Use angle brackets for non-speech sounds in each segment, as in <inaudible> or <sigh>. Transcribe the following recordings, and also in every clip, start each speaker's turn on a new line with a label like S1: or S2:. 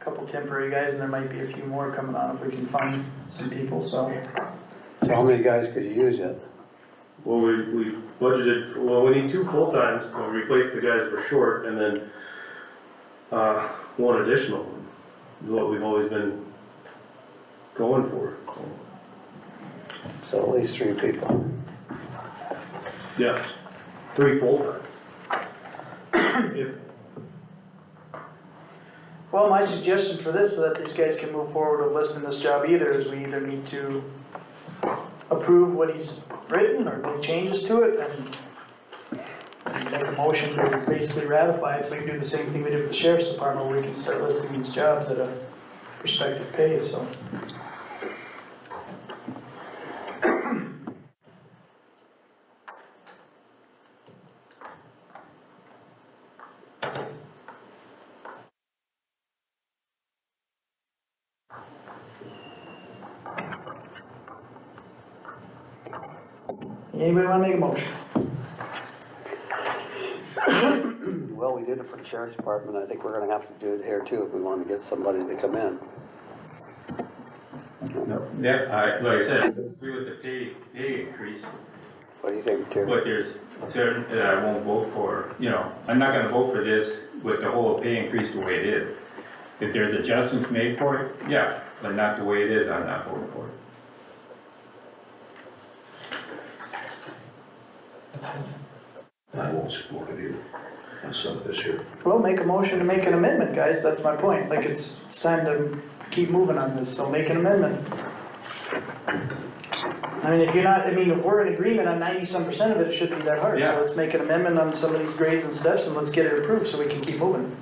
S1: couple temporary guys, and there might be a few more coming on if we can find some people, so.
S2: So how many guys could you use it?
S3: Well, we, we budgeted, for- well, we need two full-times, to replace the guys we're short, and then, uh, one additional, one, is what we've always been going for.
S2: So at least three people.
S3: Yeah, three
S4: <coughs>
S3: full-times. If,
S1: Well, my suggestion for this, so that these guys can move forward with listing this job either, is we either need to approve what he's written or make changes to it and make a motion to basically ratify it, so we can do the same thing we did with the sheriff's department, where we can start listing these jobs at a prospective pay, so. Anybody wanna make a motion?
S2: Well, we did it for the sheriff's department, I think we're gonna have to do it here too if we wanna get somebody to come in.
S4: Yeah, I, like I said, agree with the pay, pay increase,
S2: What do you think, Terry?
S4: but there's certain that I won't vote for, you know, I'm not gonna vote for this with the whole pay increase the way it is. If there's adjustments made for it, yeah, but not the way it is, I'm not voting for it.
S5: I won't support it either, on some of this here.
S1: Well, make a motion to make an amendment, guys, that's my point, like, it's, it's time to keep moving on this, so make an amendment. I mean, if you're not, I mean, if we're in agreement on ninety-some percent of it, it shouldn't be that hard, so
S4: Yeah.
S1: let's make an amendment on some of these grades and steps, and let's get it approved, so we can keep moving.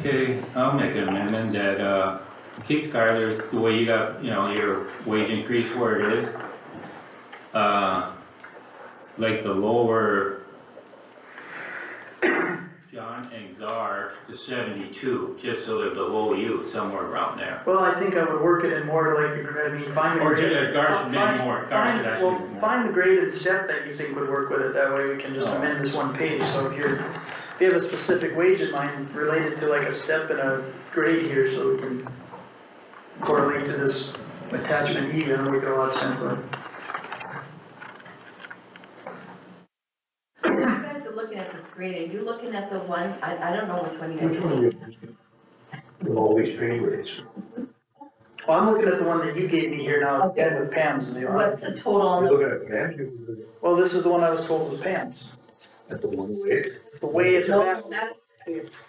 S4: Okay, I'll make an amendment that, uh, keep Skylar the way you got, you know, your wage increase where it is. Uh, like the lower John and Czar to seventy-two, just so they're below you, somewhere around there.
S1: Well, I think I would work it in more like, I mean, find
S4: the Or do grade- the Garth find- amend more. Garth should find- actually well, do more. find
S1: the grade and step that you think would work with it, that way we can
S4: just
S1: just
S4: Oh.
S1: amend
S4: amend
S1: this one page, so if you're, if you have a specific wage in mind related to like a step and a grade here, so we can correlate to this attachment E, then we get a lot simpler.
S6: So when you guys are looking at this grade, are you looking at the one, I, I don't know which one you guys are looking
S5: With all these pay rates,
S1: Well, I'm looking at the one that you gave me here now, again with Pam's in the
S6: at.
S1: R.
S6: What's the total on
S5: you
S6: the,
S5: look at it, man, you look
S1: Well, this is the one I was told was Pam's,
S5: at the one oh way,
S1: it's the way it's
S6: no,
S1: about.
S6: that's,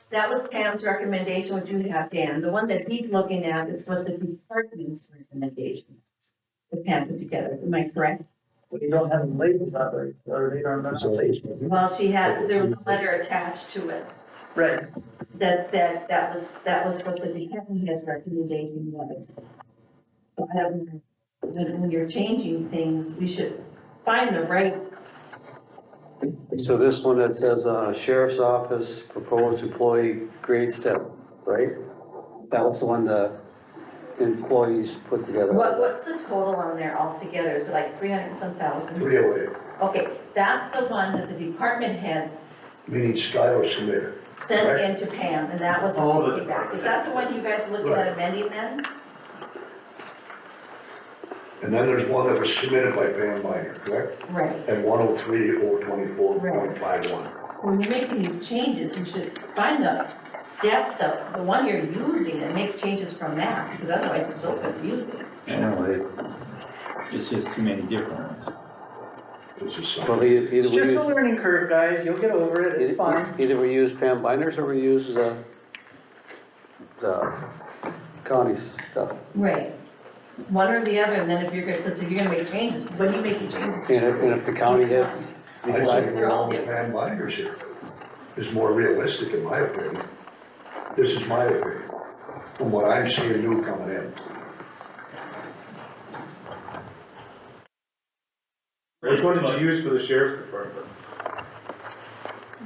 S6: that was Pam's recommendation, what you have, Dan. The one that he's looking at is what the department's recommendation is. That Pam put together, am I correct?
S1: We don't have them labels out there, or they don't, they're not
S5: so
S1: safe.
S5: it's
S6: Well, she had, there was a letter attached to it
S1: Right,
S6: that said that was, that was what the department's recommendation was. So I don't, know. when, when you're changing things, we should find the right
S2: So this one that says, uh, sheriff's office proposed employee grade step, right? That was the one the employees put together.
S6: What, what's the total on there altogether? Is it like three hundred and some thousand?
S5: three oh away,
S6: Okay, that's the one that the department heads
S5: meaning Skylar submitted.
S6: sent
S5: Right.
S6: in to Pam, and that was
S3: All the
S6: what she back. Is that the one you guys are looking
S5: Right.
S6: at amending then?
S5: And then there's one that was submitted by Van Miner, correct?
S6: Right.
S5: At one oh three, oh twenty-four point five one.
S6: When you're making these changes, you should find the step, the, the one you're using, and make changes from that, because otherwise it's so confusing.
S4: I know, it- it's just too many different ones.
S5: It's just
S2: Well,
S5: something.
S2: e- either
S1: it's
S2: we
S1: just a
S2: use,
S1: learning curve, guys, you'll get over it, it's fine.
S2: either- either we use Pam Binders or we use the, the county stuff.
S6: Right. One or the other, and then if you're gonna, let's say you're gonna make changes, when are you making changes?
S2: And if, and if the county hits,
S5: I think
S2: like,
S5: we're on the Van Miner's here is more realistic in my opinion. This is my opinion, from what I'm seeing new coming in.
S3: which one did you use for the sheriff's department?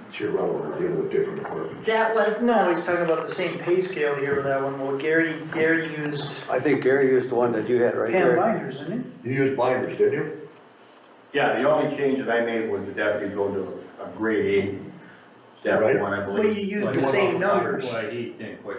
S5: It's irrelevant, dealing with different departments.
S6: That was
S1: No, he's talking about the same pay scale here with that one. Well, Gary, Gary used
S2: I think Gary used the one that you had right
S1: Pam
S2: there.
S1: Binders, didn't he?
S5: You used Miner's, didn't you?
S7: Yeah, the only change that I made was the deputy go to a grade eight, step
S5: Right.
S7: one, I believe.
S1: Well, you used
S7: Like,
S1: the same numbers.
S4: E Why he didn't quite